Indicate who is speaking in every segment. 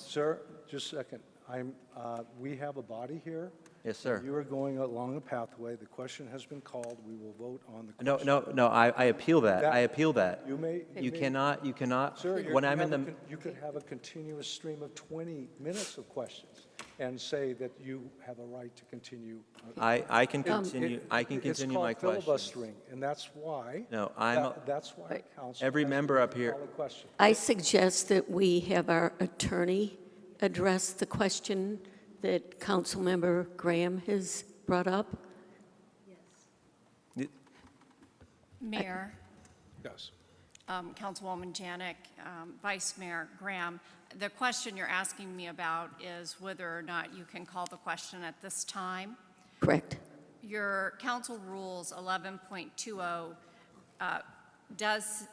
Speaker 1: Sir, just a second. I'm, uh, we have a body here.
Speaker 2: Yes, sir.
Speaker 1: You are going along a pathway. The question has been called. We will vote on the question.
Speaker 2: No, no, no, I, I appeal that, I
Speaker 1: That-
Speaker 2: appeal that.
Speaker 1: you may- you
Speaker 2: You
Speaker 1: may-
Speaker 2: cannot, you cannot,
Speaker 1: Sir, you're-
Speaker 2: when
Speaker 1: you
Speaker 2: I'm in
Speaker 1: have a
Speaker 2: the,
Speaker 1: con- you could have a continuous stream of 20 minutes of questions and say that you have a right to continue.
Speaker 2: I, I can
Speaker 1: It-
Speaker 2: continue,
Speaker 1: it-
Speaker 2: I can continue my
Speaker 1: It's called
Speaker 2: question.
Speaker 1: filibustering, and that's why.
Speaker 2: No, I'm a-
Speaker 1: that- That's why council.
Speaker 2: Every
Speaker 1: has to
Speaker 2: member up here-
Speaker 1: call a question.
Speaker 3: I suggest that we have our attorney address the question that Councilmember Graham has brought up.
Speaker 4: Mayor,
Speaker 1: Yes.
Speaker 4: um, Councilwoman Janik, um, Vice Mayor Graham, the question you're asking me about is whether or not you can call the question at this time.
Speaker 3: Correct?
Speaker 4: Your council rules 11.20 uh, does,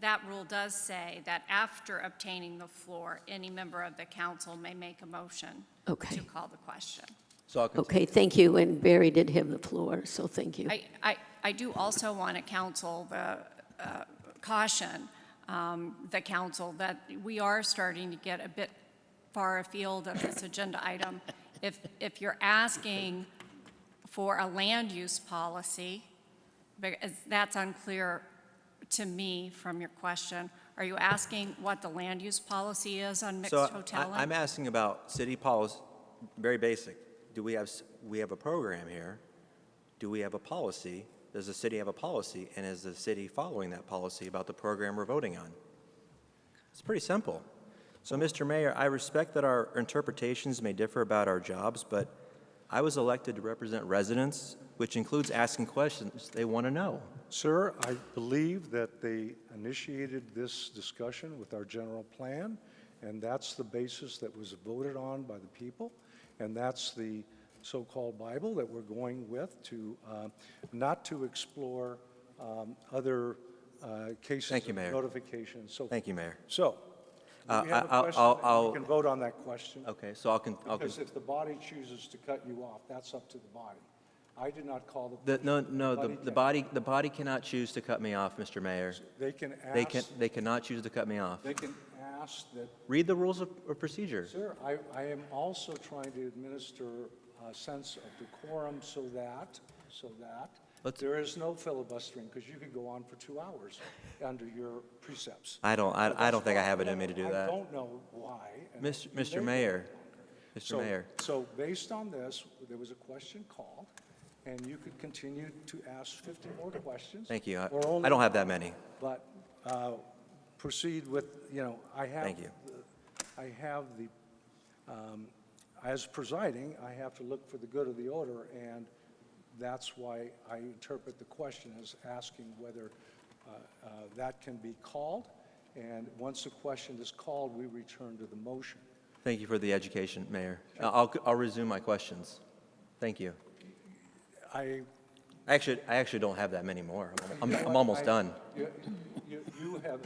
Speaker 4: that rule does say that after obtaining the floor, any member of the council may make a motion
Speaker 3: Okay.
Speaker 4: to call the question.
Speaker 2: So I'll continue.
Speaker 3: Okay, thank you, and Barry did have the floor, so thank you.
Speaker 4: I, I, I do also want to counsel the, uh, caution um, the council that we are starting to get a bit far afield of this agenda item. If, if you're asking for a land use policy, because that's unclear to me from your question, are you asking what the land use policy is on mixed
Speaker 2: So
Speaker 4: hotel?
Speaker 2: I- I'm asking about city policy, very basic. Do we have, s- we have a program here? Do we have a policy? Does the city have a policy? And is the city following that policy about the program we're voting on? It's pretty simple. So, Mr. Mayor, I respect that our interpretations may differ about our jobs, but I was elected to represent residents, which includes asking questions they want to know.
Speaker 1: Sir, I believe that they initiated this discussion with our general plan, and that's the basis that was voted on by the people, and that's the so-called Bible that we're going with to, uh, not to explore um, other uh, cases
Speaker 2: Thank you,
Speaker 1: of
Speaker 2: Mayor.
Speaker 1: notification and so.
Speaker 2: Thank you, Mayor.
Speaker 1: So, do
Speaker 2: Uh,
Speaker 1: we have
Speaker 2: I- I'll-
Speaker 1: a question,
Speaker 2: I'll-
Speaker 1: and
Speaker 2: I'll-
Speaker 1: we can vote on that question.
Speaker 2: Okay, so I'll, con- I'll, con-
Speaker 1: Because if the body chooses to cut you off, that's up to the body. I did not call the.
Speaker 2: the, no,
Speaker 1: question.
Speaker 2: no, the, the
Speaker 1: can-
Speaker 2: body, the body cannot choose to cut me off, Mr. Mayor.
Speaker 1: They can
Speaker 2: They can,
Speaker 1: ask,
Speaker 2: they cannot choose to cut me off.
Speaker 1: they can ask that,
Speaker 2: Read the rules of of procedure.
Speaker 1: sir, I, I am also trying to administer a sense of decorum so that, so that
Speaker 2: Let's-
Speaker 1: there is no filibustering, because you could go on for two hours under your precepts.
Speaker 2: I don't, I, I don't think I have it
Speaker 1: don't
Speaker 2: in me to do
Speaker 1: know- I
Speaker 2: that.
Speaker 1: don't know why. and
Speaker 2: Mis-
Speaker 1: you
Speaker 2: Mr.
Speaker 1: may-
Speaker 2: Mayor,
Speaker 1: So-
Speaker 2: Mr. Mayor,
Speaker 1: So based on this, there was a question called, and you could continue to ask 50 more questions.
Speaker 2: thank you. I
Speaker 1: or only
Speaker 2: I don't have that many.
Speaker 1: But uh, proceed with, you know, I have.
Speaker 2: Thank you.
Speaker 1: I have the, um, as presiding, I have to look for the good of the order, and that's why I interpret the question as asking whether uh, uh, that can be called, and once the question is called, we return to the motion.
Speaker 2: Thank you for the education, Mayor. I'll, I'll resume my questions. Thank you.
Speaker 1: I.
Speaker 2: I actually, I actually don't have that many more.
Speaker 1: you
Speaker 2: I'm, I'm-
Speaker 1: know
Speaker 2: I'm
Speaker 1: what?
Speaker 2: almost
Speaker 1: I-
Speaker 2: done.
Speaker 1: You, you- you have,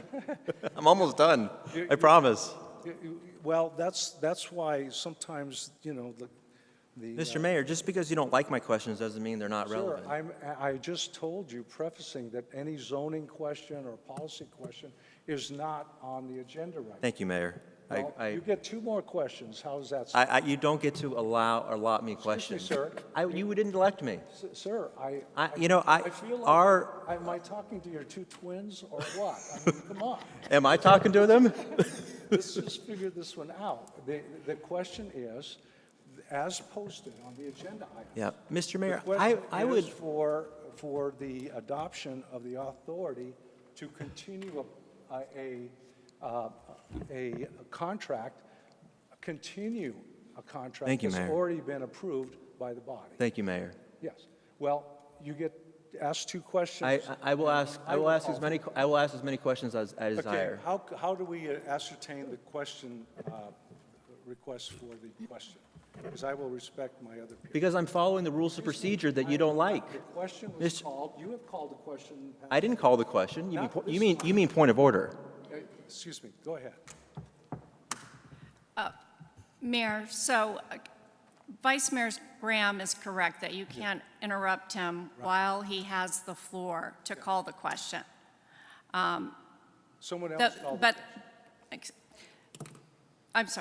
Speaker 2: I'm almost done.
Speaker 1: You-
Speaker 2: I
Speaker 1: you-
Speaker 2: promise.
Speaker 1: you- you- well, that's, that's why sometimes, you know, the. the, uh,
Speaker 2: Mr. Mayor, just because you don't like my questions doesn't mean they're not
Speaker 1: Sir,
Speaker 2: relevant.
Speaker 1: I'm, I just told you prefacing that any zoning question or policy question is not on the agenda right now.
Speaker 2: Thank you, Mayor. I,
Speaker 1: Well,
Speaker 2: I,
Speaker 1: You get two more questions, how's that?
Speaker 2: I, I- you don't get to allow, or allot me questions.
Speaker 1: sir.
Speaker 2: I, you didn't elect me.
Speaker 1: S- Sir, I.
Speaker 2: I- you know, I-
Speaker 1: feel like-
Speaker 2: our-
Speaker 1: Am I talking to your two twins or what? I mean, come on,
Speaker 2: Am I talking to them?
Speaker 1: let's just figure this one out. The, the question is, as posted on the agenda item.
Speaker 2: Yeah, Mr.
Speaker 1: The
Speaker 2: Mayor, I,
Speaker 1: question
Speaker 2: I
Speaker 1: is
Speaker 2: would,
Speaker 1: for, for the adoption of the authority to continue a, a, uh, a contract, continue a contract.
Speaker 2: Thank you,
Speaker 1: That's
Speaker 2: Mayor.
Speaker 1: already been approved by the body.
Speaker 2: thank you, Mayor.
Speaker 1: Yes. Well, you get asked two
Speaker 2: I,
Speaker 1: questions.
Speaker 2: I will ask, I will ask as
Speaker 1: Oh.
Speaker 2: many, I will ask as many questions as I
Speaker 1: Okay,
Speaker 2: desire.
Speaker 1: how, how do we ascertain the question, uh, request for the question? Because I will respect my other people.
Speaker 2: Because I'm following the rules of procedure that you don't like.
Speaker 1: The question was
Speaker 2: Mr.
Speaker 1: called, you have called the question. in the past.
Speaker 2: I didn't call the question. You mean,
Speaker 1: Not
Speaker 2: po-
Speaker 1: this
Speaker 2: you mean, you mean point of order.
Speaker 1: Uh, Excuse me, go ahead.
Speaker 4: Mayor, so uh, Vice Mayor Graham is correct that you can't interrupt him while he has the floor to call the question.
Speaker 1: Someone
Speaker 4: The-
Speaker 1: else called.
Speaker 4: But, ex- I'm sorry.